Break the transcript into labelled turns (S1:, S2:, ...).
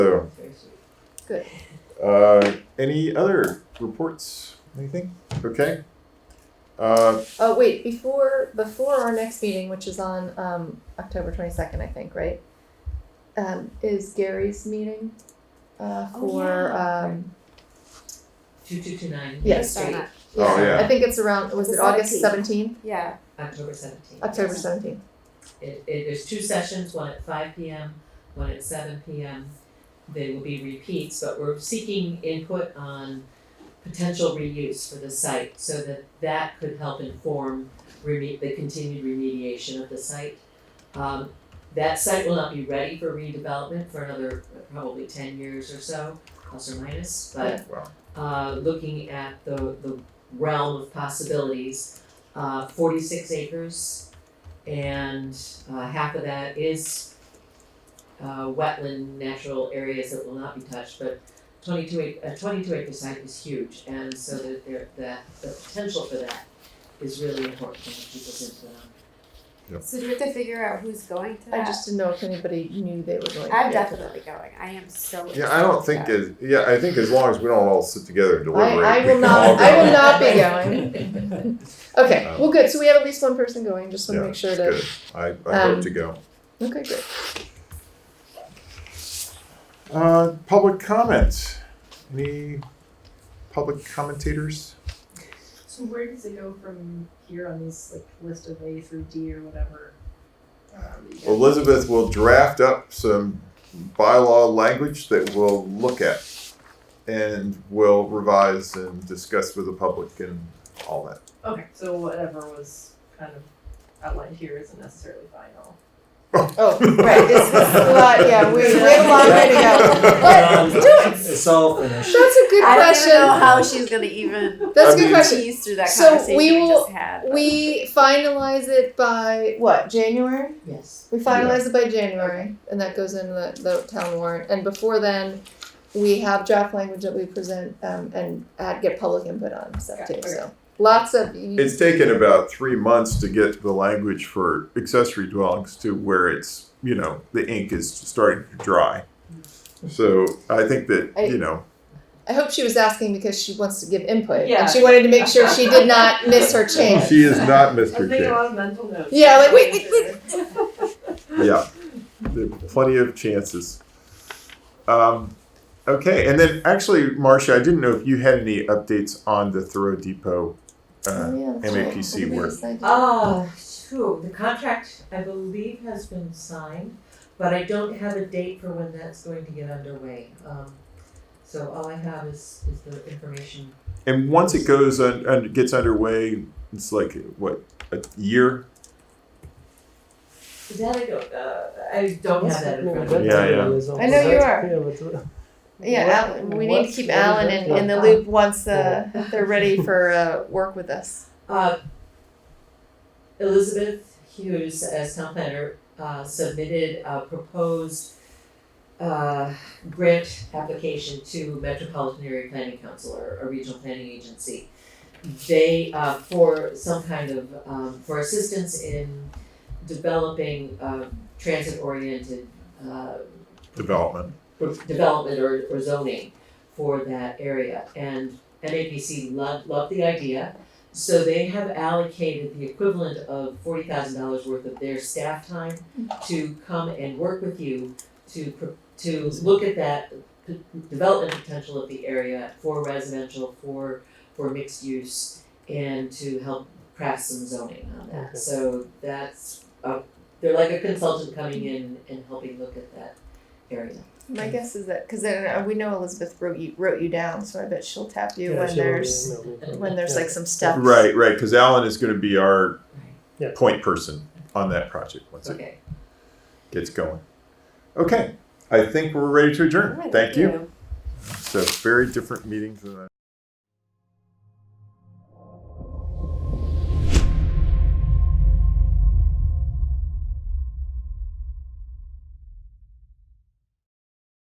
S1: So,
S2: Good.
S1: uh, any other reports? Anything? Okay. Uh,
S2: Oh wait, before before our next meeting, which is on um, October twenty second, I think, right? Um, is Gary's meeting uh,
S3: Oh,
S2: for
S3: yeah.
S2: um,
S4: Two two two nine,
S2: yes,
S3: Start
S2: yeah,
S3: up.
S1: Oh, yeah.
S2: I think it's around. Was
S3: The
S2: it August
S3: 17th.
S2: seventeenth?
S3: Yeah.
S4: October seventeenth.
S2: October seventeenth.
S4: It, it, there's two sessions, one at five P M, one at seven P M. They will be repeats, but we're seeking input on potential reuse for the site so that that could help inform reme- the continued remediation of the site. Um, that site will not be ready for redevelopment for another probably ten years or so, plus or minus, but
S1: Wow.
S4: uh, looking at the, the realm of possibilities, uh, forty-six acres and uh, half of that is uh, wetland natural areas that will not be touched, but twenty-two acre, a twenty-two acre site is huge, and so that there, that, the potential for that is really important in people's input on.
S3: So do we have to figure out who's going to
S2: I
S3: that?
S2: just didn't know if anybody knew they were going. to
S3: I'm
S2: be at the-
S3: definitely going. I am so.
S1: Yeah, I don't think as yeah, I think as long as we don't all sit together and deliberate.
S2: I, I
S1: we
S2: will
S1: can all
S2: not.
S1: go.
S2: I will not be going. Okay.
S1: Um,
S2: well, good. So we have at least one person going. Just want
S1: Yeah,
S2: to make sure
S1: it's
S2: that.
S1: good. I, I hope
S2: Um,
S1: to go.
S2: Okay, great.
S1: Uh, public comment. Any public commentators?
S5: So where does it go from here on this like list of A through D or whatever? Um, you guys-
S1: Elizabeth will draft up some bylaw language that we'll look at and we'll revise and discuss with the public and all that.
S5: Okay, so whatever was kind of outlined here isn't necessarily final.
S2: Oh, right. This is a lot. Yeah, we, we have a long way to go. But
S6: Um, It's all finished.
S2: that's a good
S3: I don't
S2: question.
S3: even know how she's gonna even
S2: That's
S1: I
S2: a good
S1: mean-
S2: question.
S3: tease through that
S2: So
S3: conversation
S2: we
S3: we,
S2: will-
S3: just had. but-
S2: We finalize it by what, January?
S4: Yes.
S2: We finalize it by January, and that goes in the, the town warrant. And before then, we have draft language that we present um, and uh, get public input on stuff
S5: Okay,
S2: too.
S5: okay.
S2: So lots of you,
S1: It's taken about three months to get the language for accessory dwellings to where it's, you know, the ink is starting to dry. So I think that, you know,
S2: I hope she was asking because she wants to give input
S5: Yeah.
S2: and she wanted to make sure she did not miss her chance.
S1: she is not
S5: I was
S1: Mr.
S5: making a
S1: Chance.
S5: lot of mental notes.
S2: Yeah, like, wait, wait, wait.
S1: Yeah, there are plenty of chances. Um, okay, and then actually, Marcia, I didn't know if you had any updates on the Thoreau Depot. Uh,
S2: Oh, yeah, that's right.
S1: MAPC
S2: What
S1: work.
S2: is this idea?
S4: Ah, phew, the contract, I believe, has been signed, but I don't have a date for when that's going to get underway. Um, so all I have is, is the information.
S1: and once it goes and un- gets underway, it's like what a year.
S4: Is that I don't, uh, I don't have that in front of me.
S1: Yeah, yeah.
S2: I know you are.
S6: are.
S2: Yeah, Alan, we need to keep Alan in, in the
S4: Uh,
S2: loop once uh, they're ready for uh, work with us.
S4: Uh, Elizabeth Hughes, as town planner, uh, submitted a proposed uh, grant application to Metropolitan Area Planning Council or a regional planning agency. They, uh, for some kind of, um, for assistance in developing, um, transit-oriented, uh,
S1: Development.
S4: for development or, or zoning for that area. And MAPC loved, loved the idea, so they have allocated the equivalent of forty thousand dollars worth of their staff time to come and work with you to, pr- to look at that p- development potential of the area for residential, for, for mixed use, and to help craft some zoning on
S6: Okay.
S4: that. So that's, uh, they're like a consultant coming in and helping look at that area.
S2: My guess is that because then uh, we know Elizabeth wrote you wrote you down, so I bet she'll tap you when there's when there's like some steps.
S1: Right, right. Because Alan is going to be our
S6: Yeah.
S1: point person on that project once it
S4: Okay.
S1: gets going. Okay, I think we're ready to adjourn.
S3: Right,
S1: Thank you. So very different meetings than I.